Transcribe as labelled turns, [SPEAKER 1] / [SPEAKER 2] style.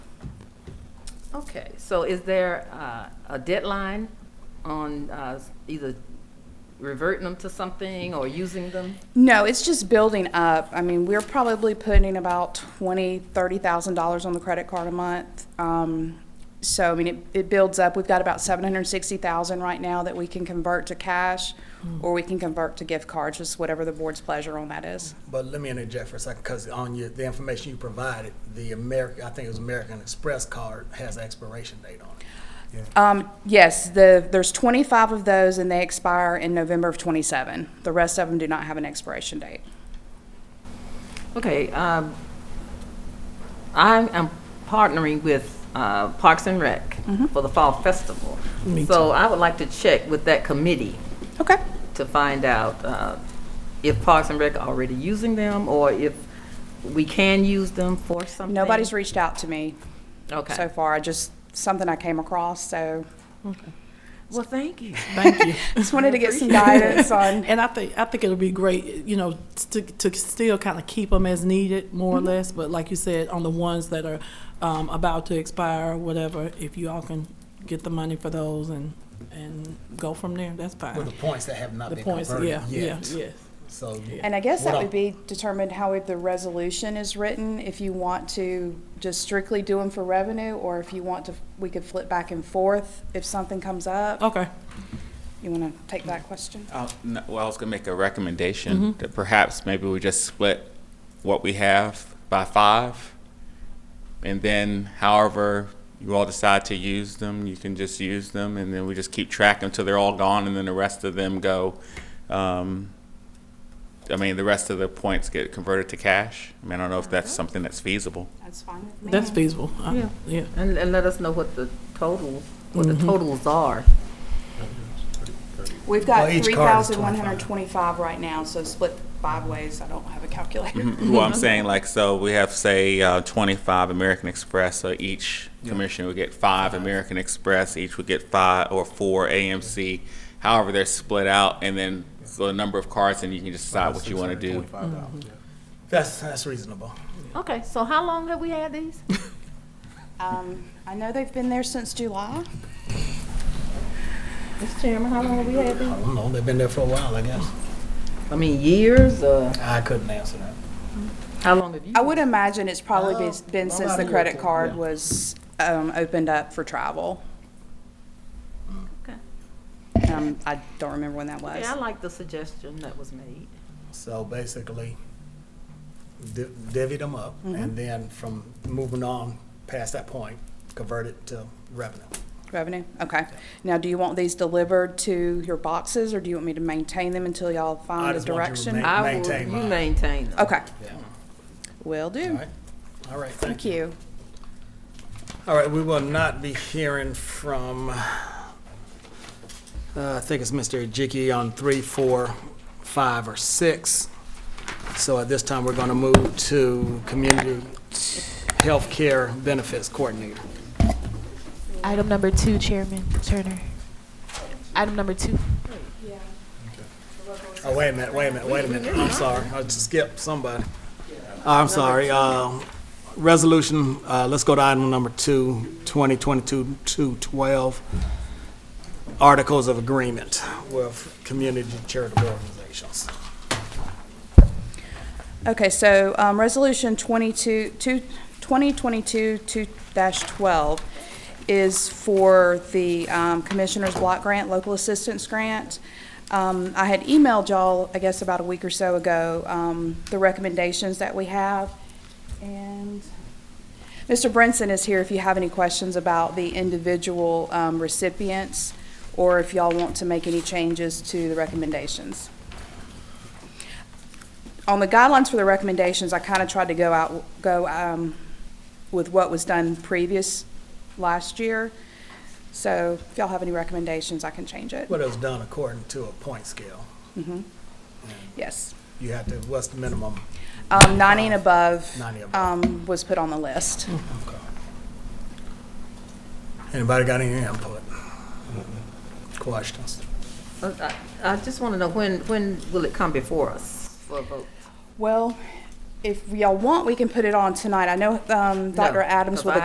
[SPEAKER 1] Okay, so is there uh, a deadline on uh, either reverting them to something or using them?
[SPEAKER 2] No, it's just building up. I mean, we're probably putting about twenty, thirty thousand dollars on the credit card a month. Um, so I mean, it, it builds up. We've got about seven hundred sixty thousand right now that we can convert to cash, or we can convert to gift cards, just whatever the board's pleasure on that is.
[SPEAKER 3] But let me interject for a second, because on your, the information you provided, the American, I think it was American Express card has an expiration date on it.
[SPEAKER 2] Um, yes, the there's twenty five of those, and they expire in November of twenty seven. The rest of them do not have an expiration date.
[SPEAKER 1] Okay, um, I am partnering with uh, Parks and Rec for the Fall Festival. So I would like to check with that committee
[SPEAKER 2] Okay.
[SPEAKER 1] to find out uh, if Parks and Rec are already using them or if we can use them for something.
[SPEAKER 2] Nobody's reached out to me
[SPEAKER 1] Okay.
[SPEAKER 2] so far. I just something I came across, so
[SPEAKER 1] Well, thank you.
[SPEAKER 4] Thank you.
[SPEAKER 2] just wanted to get some guidance on.
[SPEAKER 4] And I think, I think it'll be great, you know, to, to still kind of keep them as needed, more or less. But like you said, on the ones that are um, about to expire, whatever, if you all can get the money for those and, and go from there, that's
[SPEAKER 3] With
[SPEAKER 4] fine.
[SPEAKER 3] the points that have not
[SPEAKER 4] The
[SPEAKER 3] been
[SPEAKER 4] points,
[SPEAKER 3] converted
[SPEAKER 4] yeah, yeah,
[SPEAKER 3] yet.
[SPEAKER 4] yes.
[SPEAKER 3] So.
[SPEAKER 2] And I guess that
[SPEAKER 3] What
[SPEAKER 2] would be determined how the resolution is written, if you want to just strictly do them for revenue, or if you want to, we could flip back and forth if something comes up.
[SPEAKER 4] Okay,
[SPEAKER 2] You want to take that question?
[SPEAKER 5] Uh, no, Well, I was gonna make a recommendation that perhaps maybe we just split what we have by five. And then however you all decide to use them, you can just use them and then we just keep track until they're all gone and then the rest of them go. um, I mean, the rest of the points get converted to cash. I mean, I don't know if that's something that's feasible.
[SPEAKER 2] That's fine with me.
[SPEAKER 4] that's feasible. Uh,
[SPEAKER 1] Yeah.
[SPEAKER 4] Yeah.
[SPEAKER 1] And, and let us know what the total, what
[SPEAKER 3] Mm-hmm.
[SPEAKER 1] the totals are.
[SPEAKER 2] We've
[SPEAKER 3] Well,
[SPEAKER 2] got
[SPEAKER 3] each
[SPEAKER 2] three
[SPEAKER 3] card is
[SPEAKER 2] thousand one hundred twenty-five right now, so split five ways. I don't have a calculator.
[SPEAKER 3] Mm-hmm.
[SPEAKER 5] Mm-hmm. Well, I'm saying like, so we have, say, uh, twenty-five American Express, so each commissioner would get five American Express, each would get five or four AMC. However, they're split out and then so a number of cards and you can just decide what you wanna do.
[SPEAKER 3] Mm-hmm. That's, that's reasonable.
[SPEAKER 1] Okay, so how long have we had these?
[SPEAKER 2] Um, I know they've been there since July.
[SPEAKER 1] Mr. Chairman, how long have we had
[SPEAKER 3] I
[SPEAKER 1] these?
[SPEAKER 3] don't know, they've been there for a while, I guess.
[SPEAKER 1] I mean, years, uh,
[SPEAKER 3] I couldn't answer that.
[SPEAKER 1] how long have you?
[SPEAKER 2] I would imagine it's probably been-
[SPEAKER 3] Oh,
[SPEAKER 2] been
[SPEAKER 3] I'm
[SPEAKER 2] since
[SPEAKER 3] out
[SPEAKER 2] the
[SPEAKER 3] here
[SPEAKER 2] credit
[SPEAKER 3] too,
[SPEAKER 2] card
[SPEAKER 3] yeah.
[SPEAKER 2] was um, opened up for travel.
[SPEAKER 1] Okay.
[SPEAKER 2] Um, I don't remember when that was.
[SPEAKER 1] Yeah, I like the suggestion that was made.
[SPEAKER 3] So basically, di- divvy them up,
[SPEAKER 4] Mm-hmm.
[SPEAKER 3] and then from moving on past that point, convert it to revenue.
[SPEAKER 2] Revenue, okay. Now, do you want these delivered to your boxes, or do you want me to maintain them until y'all
[SPEAKER 3] I
[SPEAKER 2] find a
[SPEAKER 3] just want you to
[SPEAKER 2] direction?
[SPEAKER 3] remain-
[SPEAKER 1] I will-
[SPEAKER 3] Maintain
[SPEAKER 1] You
[SPEAKER 3] mine.
[SPEAKER 1] maintain them.
[SPEAKER 2] Okay,
[SPEAKER 3] Yeah.
[SPEAKER 2] will
[SPEAKER 3] All
[SPEAKER 2] do.
[SPEAKER 3] right, all right,
[SPEAKER 2] Thank you.
[SPEAKER 3] All right, we will not be hearing from, uh, I think it's Mr. Ejiki on three, four, five, or six. So at this time, we're going to move to Community Healthcare Benefits Coordinator.
[SPEAKER 6] Item number two, Chairman Turner. Item number two.
[SPEAKER 3] Oh, wait a minute, wait a minute, wait a minute. I'm sorry, I just skipped somebody. Uh, I'm sorry. uh, Resolution, uh, let's go to item number two, 2022-212, Articles of Agreement with Community Charitable Organizations.
[SPEAKER 2] Okay, so, um, resolution twenty-two, two, twenty twenty-two, two dash twelve is for the, um, Commissioner's Block Grant, Local Assistance Grant. Um, I had emailed y'all, I guess about a week or so ago, um, the recommendations that we have. And Mr. Brinson is here if you have any questions about the individual, um, recipients or if y'all want to make any changes to the recommendations on the guidelines for the recommendations, I kind of tried to go out, go um, with what was done previous last year. So if y'all have any recommendations, I can change it.
[SPEAKER 3] What is done according to a point scale.
[SPEAKER 2] Yes.
[SPEAKER 3] You have to, what's the minimum?
[SPEAKER 2] Um, 90 and above
[SPEAKER 3] 90 above. Hmm.
[SPEAKER 2] um, was put on the list.
[SPEAKER 3] Anybody got any input? Questions?
[SPEAKER 1] Uh, I I just want to know, when, when will it come before us for a vote?
[SPEAKER 2] Well, if y'all want, we can put it on tonight. I know um, Dr. Adams
[SPEAKER 1] because
[SPEAKER 2] with a